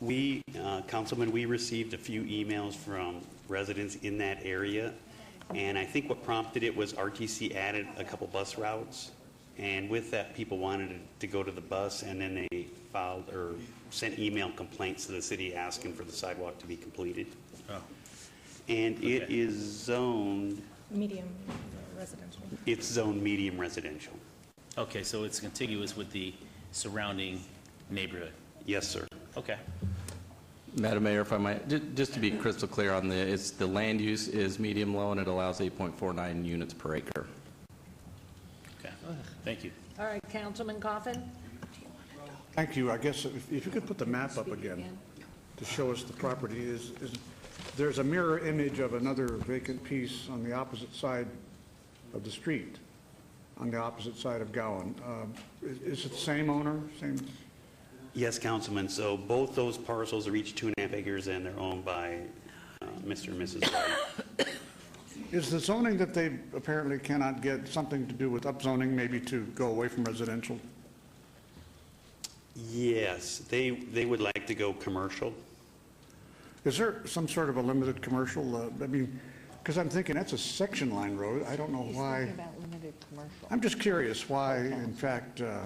We, uh, Councilman, we received a few emails from residents in that area, and I think what prompted it was RTC added a couple bus routes, and with that, people wanted to go to the bus, and then they filed or sent email complaints to the city asking for the sidewalk to be completed. Oh. And it Okay. is zoned, medium residential. it's zoned medium residential. Okay, so it's contiguous with the surrounding neighborhood. Yes, sir. Okay. Madam Mayor, if I might, ju- just to be crystal clear on the, it's, the land use is medium low, and it allows 8.49 units per acre. Okay. Thank you. All right, Councilman Coffin? Thank you. I guess if if you could put the map up again to show us the property is, is- there's a mirror image of another vacant piece on the opposite side of the street, on the opposite side of Gowan. Um, is- Is it the same owner, same? Yes, Councilman, so both those parcels are each two and a half acres, and they're owned by uh, Mr. and Mrs. White. Is the zoning that they apparently cannot get something to do with upzoning, maybe to go away from residential? Yes, they, they would like to go commercial. Is there some sort of a limited commercial? uh, I mean, because I'm thinking that's a section line road. I don't know He's why. talking about limited commercial. I'm just curious why, in fact, uh,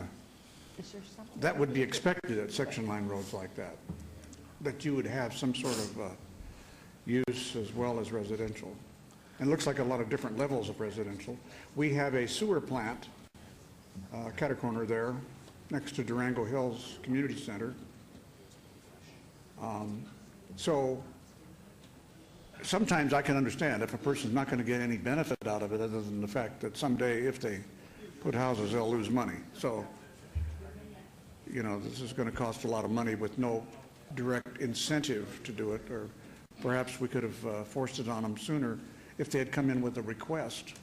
Is there something? that would be expected at section line roads like that, that you would have some sort of uh, use as well as residential. And it looks like a lot of different levels of residential. We have a sewer plant, uh, cut a corner there, next to Durango Hills Community Center. Um, So sometimes I can understand if a person's not going to get any benefit out of it other than the fact that someday if they put houses, they'll lose money. So you know, this is going to cost a lot of money with no direct incentive to do it, or perhaps we could have uh, forced it on them sooner if they had come in with a request.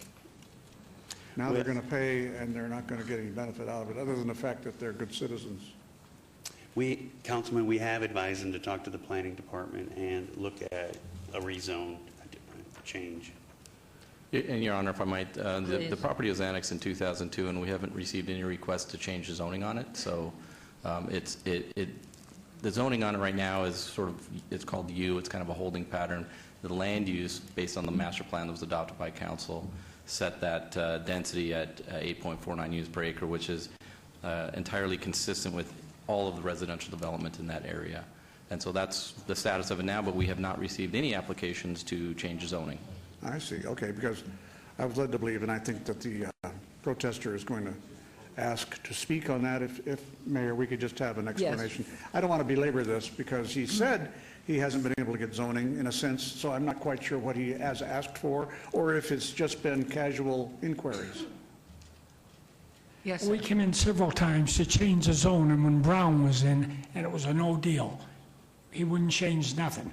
Now they're Well- going to pay, and they're not going to get any benefit out of it, other than the fact that they're good citizens. We, Councilman, we have advised them to talk to the planning department and look at a rezone change. Y- And Your Honor, if I might, uh, the, the Please. property was annexed in 2002, and we haven't received any requests to change the zoning on it, so um, it's, it, it, the zoning on it right now is sort of, it's called U, it's kind of a holding pattern. The land use, based on the master plan that was adopted by council, set that uh, density at uh, 8.49 units per acre, which is uh, entirely consistent with all of the residential development in that area. And so that's the status of it now, but we have not received any applications to change zoning. I see, okay, because I was led to believe, and I think that the uh, protester is going to ask to speak on that, if, if, Mayor, we could just have an explanation. I don't want to belabor this, because he said he hasn't been able to get zoning, in a sense, so I'm not quite sure what he has asked for, or if it's just been casual inquiries. Yes, We came in several times to change the zone, and when Brown was in, and it was a no deal, he wouldn't change nothing.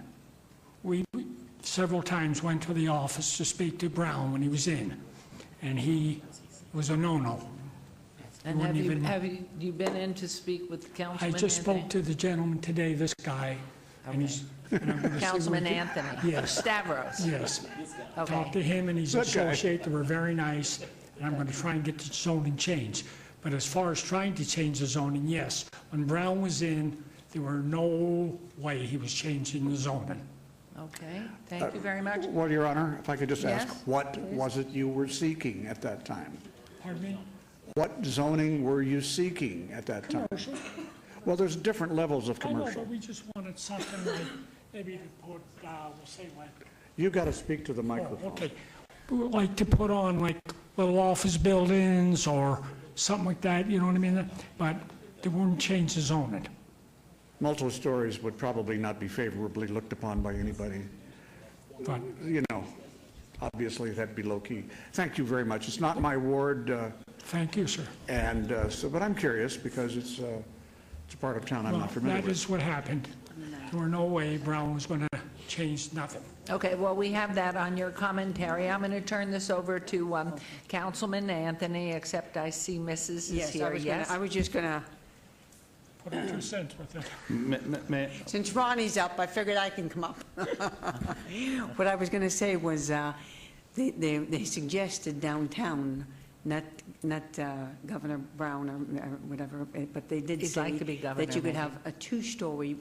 We we several times went to the office to speak to Brown when he was in, and he was a no-no. And you have wouldn't you, even- have you, you been in to speak with I Councilman just spoke Anthony? to the gentleman today, this guy, and he's... and I'm gonna see what Councilman he- Anthony? Yes. Stavros? Yes. Talked to Okay. him, and he's Good guy. associate, they were very nice, and I'm going to try and get the zoning changed. But as far as trying to change the zoning, yes. When Brown was in, there were no way he was changing the zoning. Okay, thank you very much. Well, Your Honor, if I could just ask, Yes, what was it you were seeking at that time? Pardon me? What zoning were you seeking at that time? Commercial. Well, there's different levels of I know, commercial. but we just wanted something like, maybe to put, uh, we'll say like, You've got to speak to the oh, microphone. okay. We would Like to put on like little office buildings or something like that, you know what I mean? But they wouldn't change the zoning. Multiple stories would probably not be favorably looked upon by anybody. But You know, obviously, that'd be low-key. Thank you very much. It's not my ward, uh, thank you, sir. and uh, so, but I'm curious because it's, uh, it's a part of town I'm Well, not familiar That with. is what happened. There were no way Brown was going to change nothing. Okay, well, we have that on your commentary. I'm going to turn this over to um, Councilman Anthony, except I see Mrs. is Yes, I here, was gonna, yes? I was just gonna, Put in two cents worth of since Ronnie's up, I figured I can come up. What I was gonna say was, uh, they, they they suggested downtown, not, not uh, Governor Brown or uh, whatever, eh, but they did He'd say like to be governor, that you could maybe. have a two-story